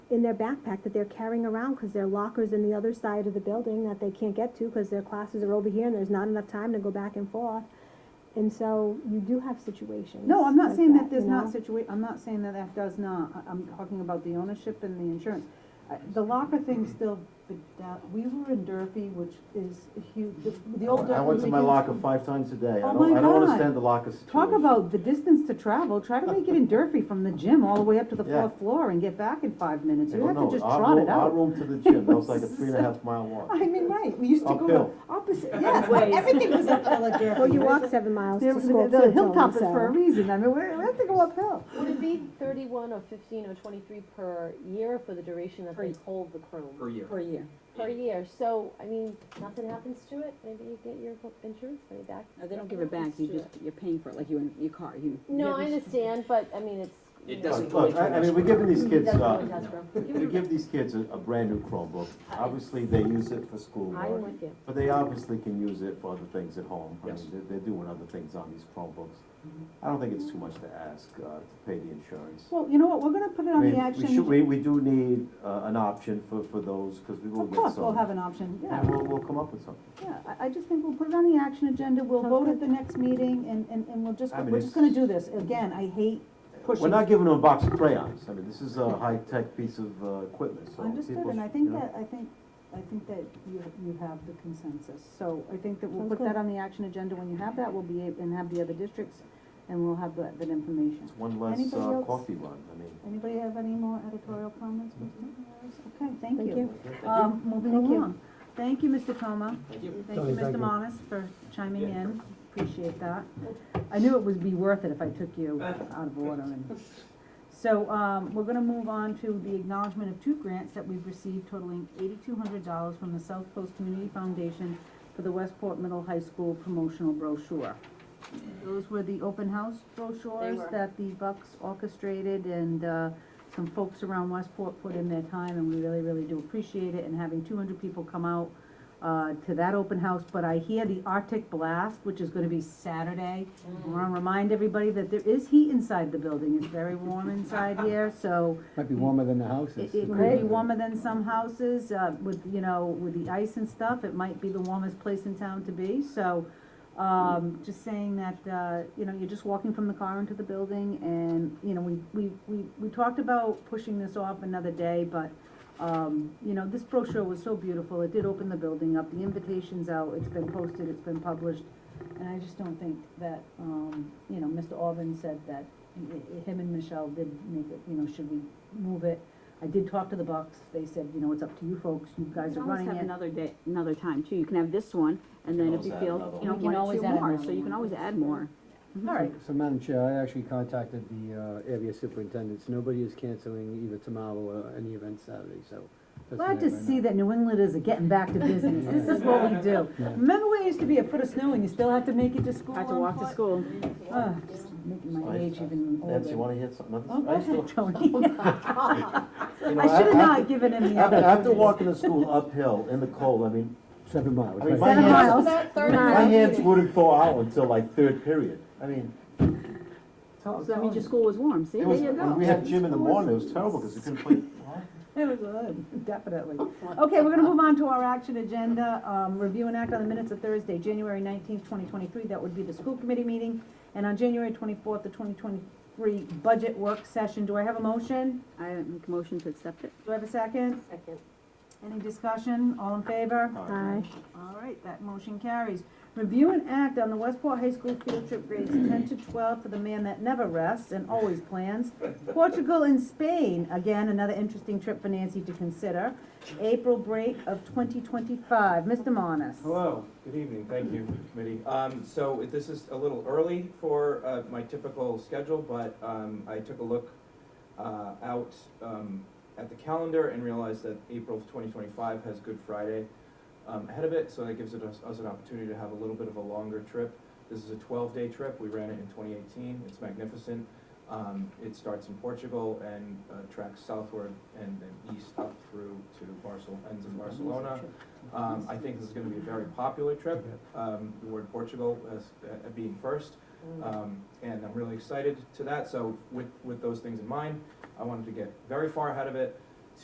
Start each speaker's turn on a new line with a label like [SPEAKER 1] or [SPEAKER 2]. [SPEAKER 1] in their backpack that they're carrying around because their locker's in the other side of the building that they can't get to because their classes are over here and there's not enough time to go back and forth. And so you do have situations.
[SPEAKER 2] No, I'm not
[SPEAKER 1] like
[SPEAKER 2] saying that
[SPEAKER 1] you
[SPEAKER 2] there's not
[SPEAKER 1] know?
[SPEAKER 2] situa, I'm not saying that that does not, I- I'm talking about the ownership and the insurance. I- The locker thing still, beda- we were in Durfee, which is a huge, the the old Durfee.
[SPEAKER 3] I went to my
[SPEAKER 2] Lincoln-
[SPEAKER 3] locker five times a day. I
[SPEAKER 2] Oh
[SPEAKER 3] don't,
[SPEAKER 2] my
[SPEAKER 3] I don't
[SPEAKER 2] God.
[SPEAKER 3] understand the locker situation.
[SPEAKER 2] Talk about the distance to travel, try to make it in Durfee from the gym all the way up to the
[SPEAKER 3] Yeah.
[SPEAKER 2] fourth floor and get back in five minutes,
[SPEAKER 3] I
[SPEAKER 2] you
[SPEAKER 3] don't
[SPEAKER 2] have to
[SPEAKER 3] know.
[SPEAKER 2] just
[SPEAKER 3] Our
[SPEAKER 2] trot
[SPEAKER 3] room-
[SPEAKER 2] it
[SPEAKER 3] Our
[SPEAKER 2] out.
[SPEAKER 3] room to the gym, that was like a three and a half mile walk.
[SPEAKER 2] I mean, right, we used to go
[SPEAKER 3] Uphill.
[SPEAKER 2] opposite, yes,
[SPEAKER 4] Ways.
[SPEAKER 2] everything was uphill at Durfee.
[SPEAKER 1] Well, you walk seven miles
[SPEAKER 2] The
[SPEAKER 1] to school
[SPEAKER 2] the-
[SPEAKER 1] too, Tony,
[SPEAKER 2] the hilltop is
[SPEAKER 1] so-
[SPEAKER 2] for a reason, I mean, we're- we have to go uphill.
[SPEAKER 4] Would it be thirty-one or fifteen or twenty-three per year for the duration that they hold the chrome?
[SPEAKER 5] per year.
[SPEAKER 2] year.
[SPEAKER 4] Per year, so, I mean, nothing happens to it, maybe you get your insurance money back.
[SPEAKER 6] No, they don't give it back,
[SPEAKER 4] Happens
[SPEAKER 6] you
[SPEAKER 4] to
[SPEAKER 6] just,
[SPEAKER 4] it.
[SPEAKER 6] you're paying for it, like you in your car, you.
[SPEAKER 4] No, I
[SPEAKER 6] you-
[SPEAKER 4] understand, but, I mean, it's.
[SPEAKER 5] It
[SPEAKER 4] you know,
[SPEAKER 5] doesn't
[SPEAKER 3] Look,
[SPEAKER 5] go
[SPEAKER 3] look, I, I mean, we're giving these kids,
[SPEAKER 4] Doesn't go
[SPEAKER 3] uh,
[SPEAKER 4] into escrow.
[SPEAKER 3] we give these kids a, a brand-new Chromebook. Obviously, they use it for
[SPEAKER 4] I'm
[SPEAKER 3] schoolwork,
[SPEAKER 4] with you.
[SPEAKER 3] but they obviously can use it for other things at home. I mean,
[SPEAKER 5] Yes.
[SPEAKER 3] They're, they're doing other things on these Chromebooks. I don't think it's too much to ask, uh, to pay the insurance.
[SPEAKER 2] Mm-hmm. Well, you know what, we're gonna put it
[SPEAKER 3] I
[SPEAKER 2] on the
[SPEAKER 3] mean,
[SPEAKER 2] action.
[SPEAKER 3] we should, we, we do need, uh, an option for, for those, because we will
[SPEAKER 2] Of
[SPEAKER 3] get some.
[SPEAKER 2] course, we'll have an option,
[SPEAKER 3] And
[SPEAKER 2] yeah,
[SPEAKER 3] we'll, we'll come up with something.
[SPEAKER 2] yeah, I, I just think we'll put it on the action agenda, we'll vote at the next meeting, and, and, and we'll just,
[SPEAKER 3] I mean,
[SPEAKER 2] we're just
[SPEAKER 3] it's-
[SPEAKER 2] gonna do this, again, I hate
[SPEAKER 3] We're
[SPEAKER 2] pushing.
[SPEAKER 3] not giving them a box of crayons, I mean, this is a high-tech piece of, uh, equipment, so.
[SPEAKER 2] Understood,
[SPEAKER 3] people
[SPEAKER 2] and I
[SPEAKER 3] should,
[SPEAKER 2] think
[SPEAKER 3] you know.
[SPEAKER 2] that, I think, I think that you, you have the consensus, so I think that we'll
[SPEAKER 1] Sounds
[SPEAKER 2] put that
[SPEAKER 1] good.
[SPEAKER 2] on the action agenda, when you have that, we'll be, able and have the other districts, and we'll have that, that information.
[SPEAKER 3] It's one less,
[SPEAKER 2] Anybody
[SPEAKER 3] uh,
[SPEAKER 2] else?
[SPEAKER 3] coffee run, I mean.
[SPEAKER 2] Anybody have any more editorial comments? Mr. Maris? Okay, thank
[SPEAKER 1] Thank
[SPEAKER 2] you.
[SPEAKER 1] you.
[SPEAKER 2] Um, moving
[SPEAKER 1] Thank you.
[SPEAKER 2] along, thank you, Mr. Toma.
[SPEAKER 5] Thank you.
[SPEAKER 2] Thank you, Mr. Monas, for chiming in, appreciate that. I knew it would be worth it if I took you out of order and. So, um, we're gonna move on to the acknowledgement of two grants that we've received totaling eighty-two hundred dollars from the South Coast Community Foundation for the Westport Middle High School promotional brochure. Those were the open house brochures
[SPEAKER 4] were.
[SPEAKER 2] that the Bucks orchestrated and, uh, some folks around Westport put in their time and we really, really do appreciate it and having two hundred people come out uh, to that open house, but I hear the Arctic Blast, which is gonna be Saturday. I wanna remind everybody that there is heat inside the building, it's very warm inside here, so
[SPEAKER 7] Might be warmer than the
[SPEAKER 2] it,
[SPEAKER 7] houses.
[SPEAKER 2] it could be warmer than some houses, uh, with, you know, with the ice and stuff, it might be the warmest place in town to be, so, um, just saying that, uh, you know, you're just walking from the car into the building, and, you know, we, we, we, we talked about pushing this off another day, but, um, you know, this brochure was so beautiful, it did open the building up, the invitation's out, it's been posted, it's been published, and I just don't think that, um, you know, Mr. Alvin said that, i- i- him and Michelle did make it, you know, should we move it? I did talk to the Bucks, they said, you know, it's up to you folks, you guys
[SPEAKER 6] You
[SPEAKER 2] are
[SPEAKER 6] can always
[SPEAKER 2] running
[SPEAKER 6] have
[SPEAKER 2] it.
[SPEAKER 6] another day, another time too, you can have this one, and then if
[SPEAKER 3] Always
[SPEAKER 6] you
[SPEAKER 3] add
[SPEAKER 6] feel,
[SPEAKER 3] another
[SPEAKER 6] you know,
[SPEAKER 2] one. We can
[SPEAKER 6] one or
[SPEAKER 2] always
[SPEAKER 6] two
[SPEAKER 2] add
[SPEAKER 6] more,
[SPEAKER 2] another
[SPEAKER 6] so you can
[SPEAKER 2] one.
[SPEAKER 6] always add more.
[SPEAKER 2] All right,
[SPEAKER 7] So Madam Chair, I actually contacted the uh, area superintendents, nobody is canceling either tomorrow or any event Saturday, so. that's
[SPEAKER 2] glad
[SPEAKER 7] what I
[SPEAKER 2] to
[SPEAKER 7] have
[SPEAKER 2] see that New Englanders are getting back to business, this is what we do.
[SPEAKER 7] Yeah.
[SPEAKER 2] Remember where it used to be a foot of snow and you still had to make it to school?
[SPEAKER 6] Had to
[SPEAKER 2] on
[SPEAKER 6] walk to
[SPEAKER 2] foot?
[SPEAKER 6] school.
[SPEAKER 2] Ah, just making my age even older.
[SPEAKER 3] Nancy, you wanna hear something?
[SPEAKER 2] Oh, go
[SPEAKER 3] I used to-
[SPEAKER 2] ahead, Tony.
[SPEAKER 3] you know,
[SPEAKER 2] I should have
[SPEAKER 3] after-
[SPEAKER 2] not given him the
[SPEAKER 3] After,
[SPEAKER 2] other.
[SPEAKER 3] after walking to school uphill in the cold, I mean,
[SPEAKER 7] now. Seven miles,
[SPEAKER 3] I mean,
[SPEAKER 7] right.
[SPEAKER 3] my
[SPEAKER 2] Seven
[SPEAKER 3] hands-
[SPEAKER 2] miles.
[SPEAKER 4] About third
[SPEAKER 3] my
[SPEAKER 4] round.
[SPEAKER 3] hands wouldn't thaw out until like third period. I mean,
[SPEAKER 2] Tell-
[SPEAKER 6] So that
[SPEAKER 2] tell
[SPEAKER 6] means your
[SPEAKER 2] him.
[SPEAKER 6] school was warm, see,
[SPEAKER 3] it
[SPEAKER 6] there
[SPEAKER 3] was,
[SPEAKER 6] you
[SPEAKER 3] when we
[SPEAKER 6] go.
[SPEAKER 3] had gym in the morning, it was terrible because we couldn't play.
[SPEAKER 2] It was good, definitely. Okay, we're gonna move on to our action agenda, um, review and act on the minutes of Thursday, January nineteenth, twenty twenty-three, that would be the school committee meeting, and on January twenty-fourth, the twenty twenty-three budget work session, do I have a motion?
[SPEAKER 6] I make a motion to accept it.
[SPEAKER 2] Do I have a second?
[SPEAKER 4] Second.
[SPEAKER 2] Any discussion, all in favor?
[SPEAKER 1] Aye.
[SPEAKER 2] All right, that motion carries. Review and act on the Westport High School field trip grades ten to twelve for the man that never rests and always plans. Portugal and Spain, again, another interesting trip for Nancy to consider. April break of twenty twenty-five, Mr. Monas.
[SPEAKER 8] Hello, good evening, thank you, committee. Um, so this is a little early for, uh, my typical schedule, but, um, I took a look, uh, out, um, at the calendar and realized that April twenty twenty-five has Good Friday, um, ahead of it, so that gives it us, us an opportunity to have a little bit of a longer trip. This is a twelve-day trip, we ran it in twenty eighteen, it's magnificent. Um, it starts in Portugal and, uh, tracks southward and then east up through to Barcelona, ends in Barcelona. Um, I think this is gonna be a very popular trip, um, the word Portugal as, uh, being first. Um, and I'm really excited to that, so with, with those things in mind, I wanted to get very far ahead of it.